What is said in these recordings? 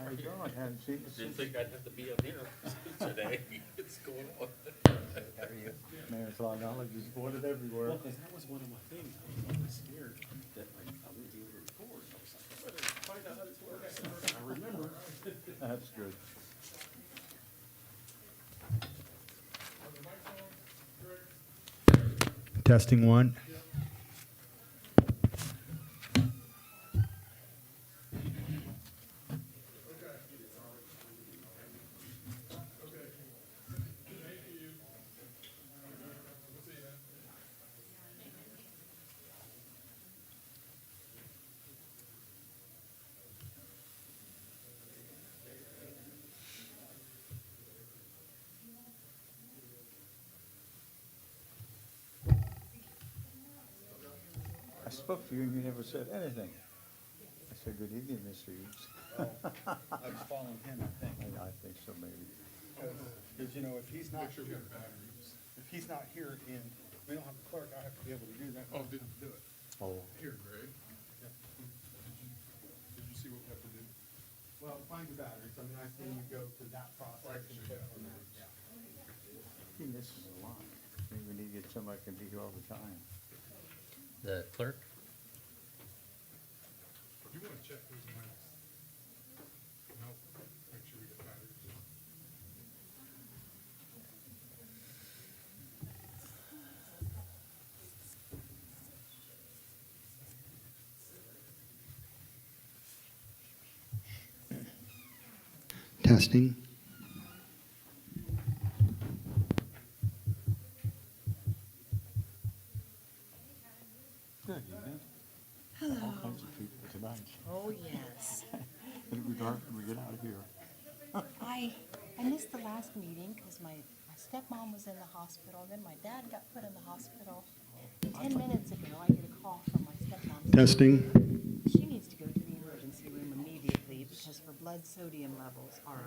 hadn't seen it Didn't since think I'd have to be up here today. It's going on. Mayor's Law Knowledge is boarded everywhere. Well, 'cause that was one of my things, I was always scared that like I wouldn't be able to record, I was like, I better find out how this works, I remember. That's good. Testing one. I spoke to you and you never said anything. I said, good evening, Mr. Eads. Oh. I was following him, I think, I, I think so, maybe. because, you know, if he's not here, if he's not here and we don't have a clerk, I have to be able to do that. Oh, didn't do it. Oh, Here, Greg. Did you, did you see what we have to do? Well, find the batteries, I mean, I see you go to that process. and put on that, yeah. he misses a lot. Maybe we need to get somebody who can be here all the time. The clerk? You wanna check those mics? No, make sure we get batteries. Testing. Good evening. All Hello. kinds of people tonight. Oh, yes. It'll be dark when we get out of here. I, I missed the last meeting because my, my stepmom was in the hospital, then my dad got put in the hospital. And Ten minutes ago, I get a call from my stepmom. saying Testing. She needs to go to the emergency room immediately because her blood sodium levels are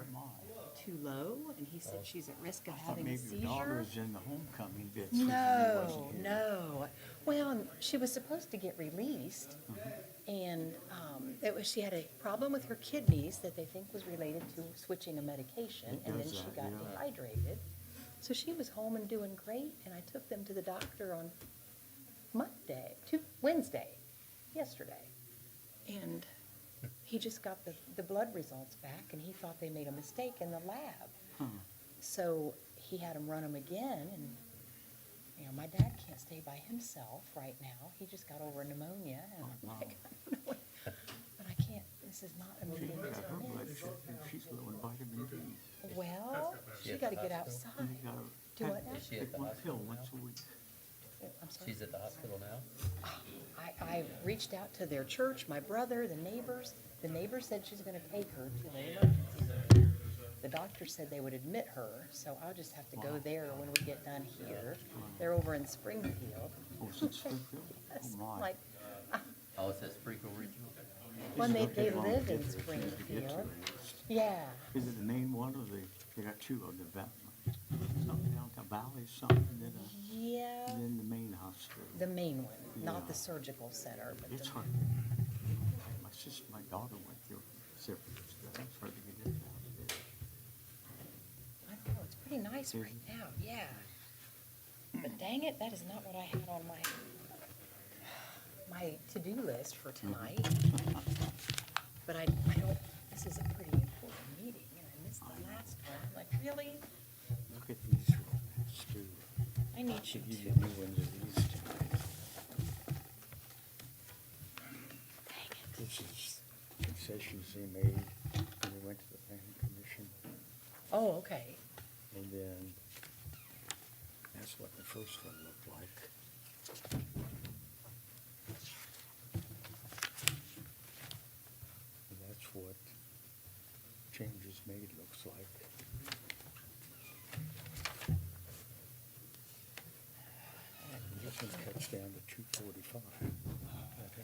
too low, and he said she's at risk of I thought having a maybe your daughter seizure. was in the homecoming bit. so she No, wasn't here. no. Well, and she was supposed to get released, Mm-hmm. and um, it was, she had a problem with her kidneys that they think was related to switching a medication, It and then does she that, got yeah. dehydrated. So she was home and doing great, and I took them to the doctor on Monday, Tu Wednesday, yesterday. And he just got the, the blood results back, and he thought they made a mistake in the lab. Hmm. So he had him run him again, and you know, my dad can't stay by himself right now. He just got over pneumonia, and I'm Oh, wow. like, I don't know what, but I can't. This is not She immediate. got her blood sugar, and she's low in vitamin D. Well, she got to get outside. And you gotta Do have- what now? Is she at take the one pill hospital now? once a week. I'm sorry. She's at the hospital now? I, I reached out to their church, my brother, the neighbors. The neighbor said she's going to take her to the emergency room. The doctor said they would admit her, so I'll just have to go there when we get done here. They're over in Springfield. Oh, it's in Springfield? Yes, Oh, my. Like, Oh, it says Sprinkle Regional? when This they, is gonna they take long to live get in there. She has to get to Springfield. it. Yeah, Is it the main one or the, they got two of the, va- something down the valley, something, then, a- yeah, and then the main hospital. the main one, Yeah. not the surgical center, but It's the, hard. My sister, my daughter went through it several years ago. It's hard to get in and out of there. I don't know, it's pretty nice Is right now, yeah. But dang it, that is not what I had on my, my to-do list for tonight. But I, I don't, this is a pretty important meeting, and I missed the last one, like, really? Look at these real fast, too. I need you Should give to, you new ones of these tonight. dang it. This is concessions they made when they went to the planning commission. Oh, okay, And then, that's what the first one looked like. And that's what changes made looks like. And This one cuts down to two forty-five.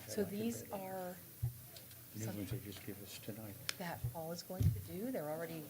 so these are New ones they just give us tonight. that Paul is going to do, they're already